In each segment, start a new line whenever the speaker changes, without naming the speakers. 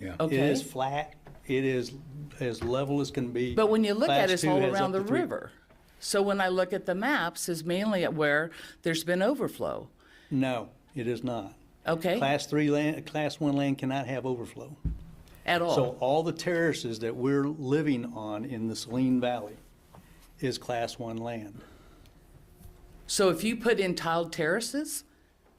Yeah.
It
Okay.
is flat, it is as level as can be.
But when you look at
Class
it, it's
two
all
has
around
up
the
to three-
river. So when I look at the maps, it's mainly at where there's been overflow.
No, it is not.
Okay,
Class three land, class one land cannot have overflow.
at
So
all.
all the terraces that we're living on in the Saline Valley is class one land.
So if you put in tiled terraces,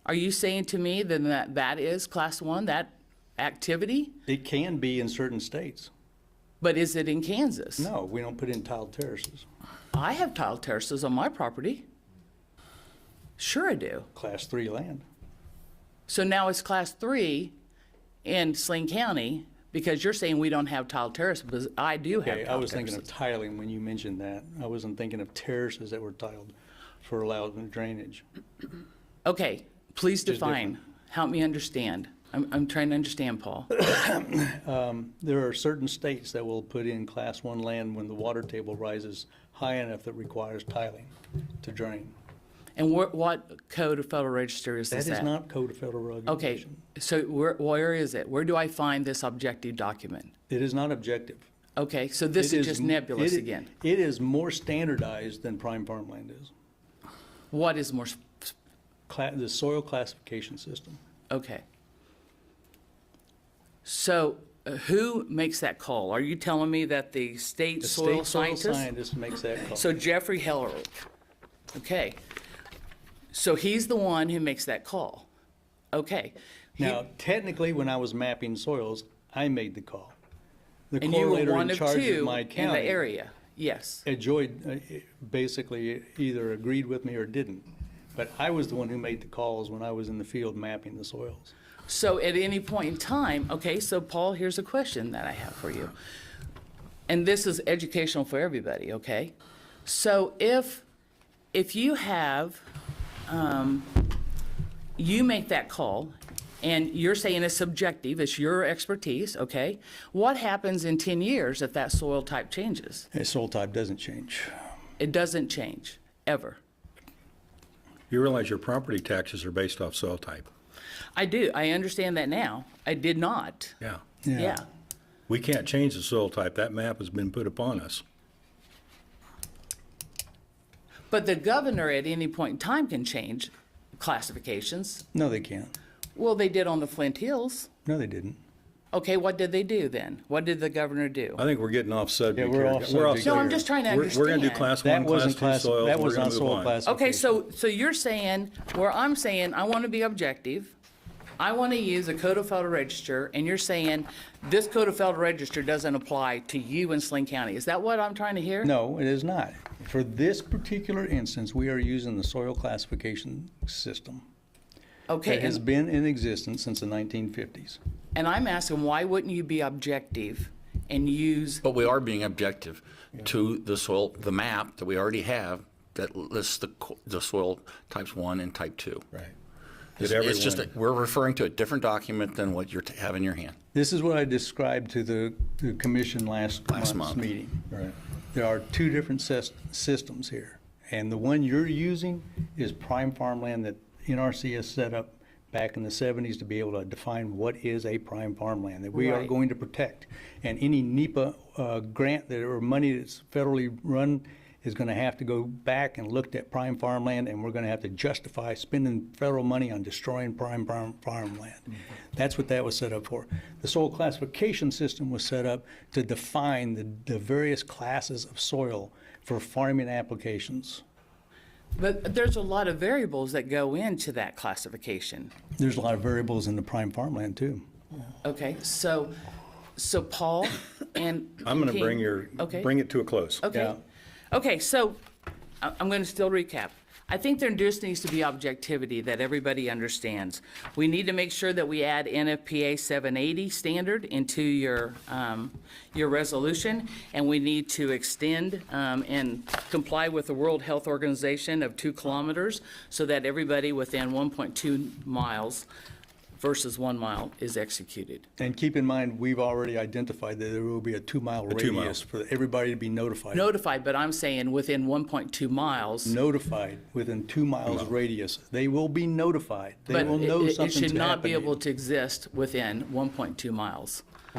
are you saying to me then that that is class one, that activity?
It can be in certain states.
But is it in Kansas?
No, we don't put in tiled terraces.
I have tiled terraces on my property. Sure I do.
Class three land.
So now it's class three in Sling County because you're saying we don't have tiled terraces, but I do have
Okay, I
tiled
was thinking of
terraces.
tiling when you mentioned that. I wasn't thinking of terraces that were tiled for allowed drainage.
Okay, please
Which is different.
define. Help me understand. I'm, I'm trying to understand, Paul.
There are certain states that will put in class one land when the water table rises high enough that requires tiling to drain.
And what, what code of federal register is
That
this
is
at?
not code of federal regulation.
Okay, so where, where is it? Where do I find this objective document?
It is not objective.
Okay, so this
It
is just
m-
nebulous
it i-
again.
It is more standardized than prime farmland is.
What is more, sp-
Cla- The soil classification system.
Okay. So uh, who makes that call? Are you telling me that the state
The
soil
state soil
scientist?
scientist makes that call.
So Jeffrey Hellerich. Okay. So he's the one who makes that call. Okay. He-
Now, technically, when I was mapping soils, I made the call. The
And you were
correlator
one
in
of
charge of
two
my
in the
county
area. Yes.
enjoyed, uh, basically either agreed with me or didn't. But I was the one who made the calls when I was in the field mapping the soils.
So at any point in time, okay, so Paul, here's a question that I have for you. And this is educational for everybody, okay? So if, if you have, um, you make that call and you're saying it's subjective, it's your expertise, okay? What happens in 10 years if that soil type changes?
And soil type doesn't change.
It doesn't change, ever.
You realize your property taxes are based off soil type.
I do, I understand that now. I did not.
Yeah.
Yeah.
We can't change the soil type. That map has been put upon us.
But the governor at any point in time can change classifications.
No, they can't.
Well, they did on the Flint Hills.
No, they didn't.
Okay, what did they do then? What did the governor do?
I think we're getting off subject
Yeah, we're
here.
off subject
No, I'm
subject.
just trying to
We're- We're going to
understand.
do class
That
one, class
wasn't
two
class,
soils.
that
We're
was
gonna
not
move
soil
on.
classification.
Okay, so, so you're saying, where I'm saying, I want to be objective, I want to use a code of federal register, and you're saying this code of federal register doesn't apply to you in Sling County. Is that what I'm trying to hear?
No, it is not. For this particular instance, we are using the soil classification system
Okay,
that has
and,
been in existence since the 1950s.
and I'm asking, why wouldn't you be objective and use,
But we are being objective to the soil, the map that we already have that lists the, co- the soil types one and type two.
Right.
It's
That
it's just,
everyone-
that we're referring to a different document than what you have in your hand.
This is what I described to the, the commission last
Last
month's
month.
meeting. Right. There are two different sys- systems here, and the one you're using is prime farmland that NRC has set up back in the seventies to be able to define what is a prime farmland that we are
Right.
going to protect. And any NEPA, uh, grant that, or money that's federally run is gonna have to go back and looked at prime farmland, and we're gonna have to justify spending federal money on destroying prime farm, farmland. That's what that was set up for. The soil classification system was set up to define the, the various classes of soil for farming applications.
but there's a lot of variables that go into that classification.
There's a lot of variables in the prime farmland too.
Okay, so, so Paul and.
I'm going to
King-
bring your,
Okay.
bring it to a close.
Okay, okay, so I- I'm going to still recap. I think there just needs to be objectivity that everybody understands. We need to make sure that we add NFPA 780 standard into your, um, your resolution, and we need to extend um, and comply with the World Health Organization of two kilometers so that everybody within 1.2 miles versus one mile is executed.
And keep in mind, we've already identified that there will be a two-mile
two mile.
radius for everybody to be notified.
Notified, but I'm saying within 1.2 miles.
Notified within two miles radius. They will be notified. They
But
will
it-
know
it- it
something's
should not be
happening.
able to exist within 1.2 miles.